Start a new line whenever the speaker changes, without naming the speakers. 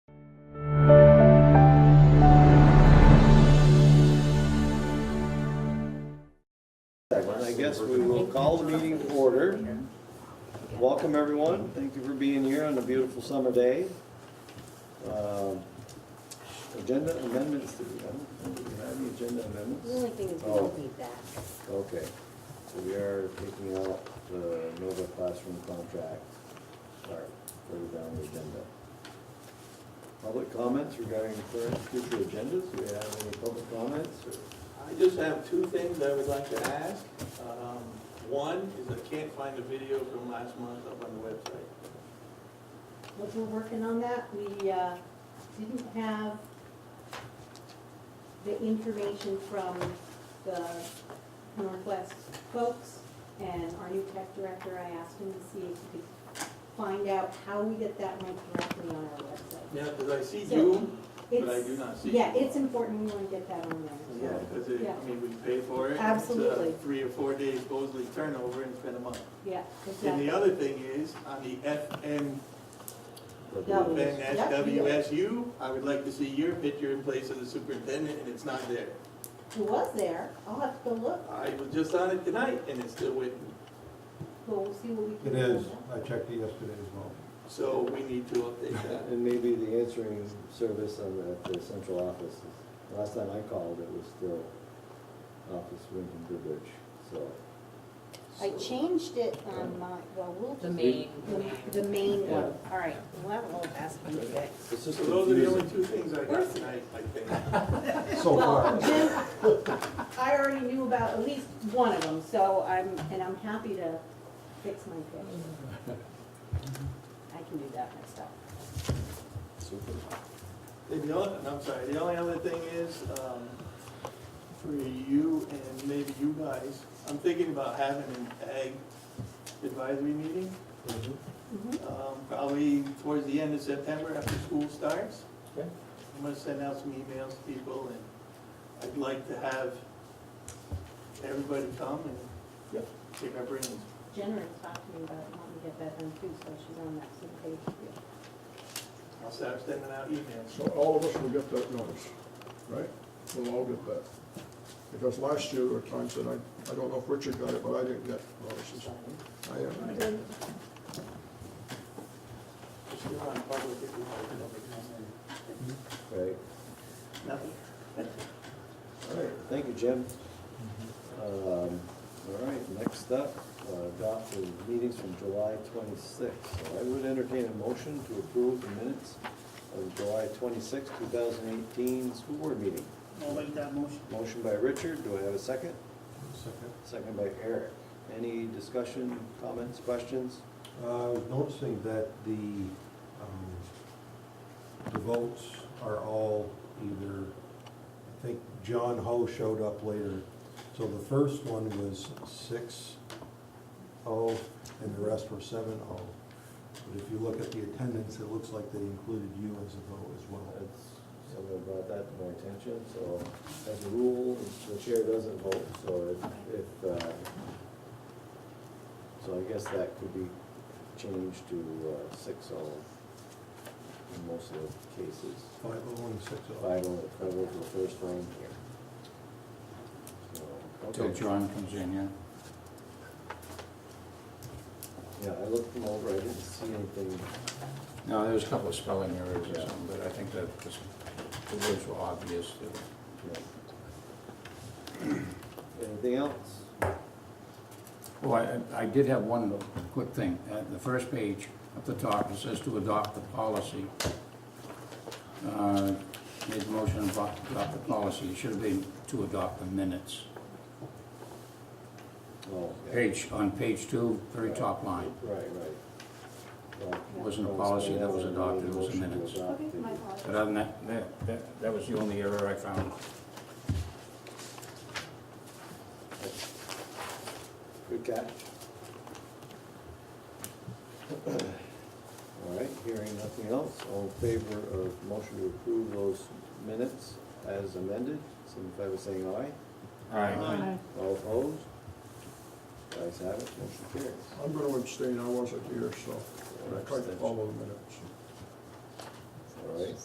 we will call the meeting to order. Welcome, everyone. Thank you for being here on a beautiful summer day. Um, Agenda amendments, do we have, do we have the agenda
The
amendments?
only thing is we
Oh.
don't need that.
Okay, so we are taking out the Nova classroom contract, start further down the agenda. Public comments regarding current future agendas, do we have any public comments? or-
I just have two things I would like to ask. Um, One is I can't find the video from last month up on the website.
But we're working on that. We uh, didn't have the information from the Northwest folks and our new tech director. I asked him to see if he could find out how we get that link directly on our website.
Yeah, because I see
So,
Zoom, but I
It's-
do not see.
Yeah,
you.
it's important. We want to get that on there.
Yeah, because it,
Yeah.
I mean, we pay for it. It's, uh,
Absolutely.
Three or four days supposedly turnover and spend a month.
Yeah,
And
exactly.
the other thing is, on the FM,
Oh, Yeah.
FNSWSU, I would like to see your picture in place of the superintendent, and it's not there.
Who was there? I'll have to go look.
I was just on it tonight, and it's still with me.
We'll see what we can
It
do.
is,
with that.
I checked it yesterday as well.
So we need to update that.
Uh, And maybe the answering service on the, at the central office, is- last time I called, it was still Office Winton Goodrich, so.
I changed it on my, well, we'll
The
just.
main,
The main one,
Yeah.
all right, we'll have a little aspirin today.
It's
So
just
those are the only
confusing.
two things I got tonight, I think.
So far,
I already knew about at least one of them, so I'm, and I'm happy to fix my pitch. I can do that myself.
Super.
The only, and I'm sorry, the only other thing is, um, for you and maybe you guys, I'm thinking about having an ag advisory meeting,
Mm-hmm.
um, probably towards the end of September after school starts.
Okay.
I'm gonna send out some emails to people and I'd like to have everybody come and take our brains.
Jenna has talked to me about wanting to get that done too, so she's on that same page.
I'll start sending out emails.
So all of us will get that notice, right? We'll all get that. Because last year, there were times that I, I don't know if Richard got it, but I didn't get notices. I, uh,
Just go on public if you want to come in.
Right,
Nothing.
all right, thank you, Jim. Um, all right, next up, uh, adopt the meetings from July twenty-sixth. So I would entertain a motion to approve the minutes of July twenty-sixth, two thousand eighteen school board meeting.
I'll make that motion.
Motion by Richard, do I have a second?
second,
Second by Eric. Any discussion, comments, questions?
uh, I was noticing that the, um, the votes are all either, I think John Ho showed up later. So the first one was six oh, and the rest were seven oh. But if you look at the attendance, it looks like they included you as a vote as well.
That's, someone brought that to my attention, so as a rule, the chair doesn't vote, so if, if, uh, so I guess that could be changed to uh, six oh in most of the cases.
Five oh and six oh.
Five oh, five oh for the first one here. So,
Till
okay.
John comes in, yeah.
Yeah, I looked them over, I didn't see anything,
No, there's a couple of spelling errors or something, but I think that this- the words were obvious.
yeah. Anything else?
Oh, I, I did have one quick thing. At the first page, at the top, it says to adopt the policy. Uh, Made the motion to adopt adopt the policy. It should have been to adopt the minutes.
Oh, yeah.
Page, on page two, very top line.
Right, right. Well,
It wasn't a policy that was adopted, it was the
Motion to
minutes.
adopt
Okay,
the-
my
But
apologies.
other than that, that, that, that was the only error I found.
Good catch. All right, hearing nothing else, all in favor of motion to approve those minutes as amended, signify by saying aye.
All right.
Aye.
All opposed? Guys have it, motion carries.
I'm gonna abstain, I wasn't here, so I tried to follow the minutes.
All right,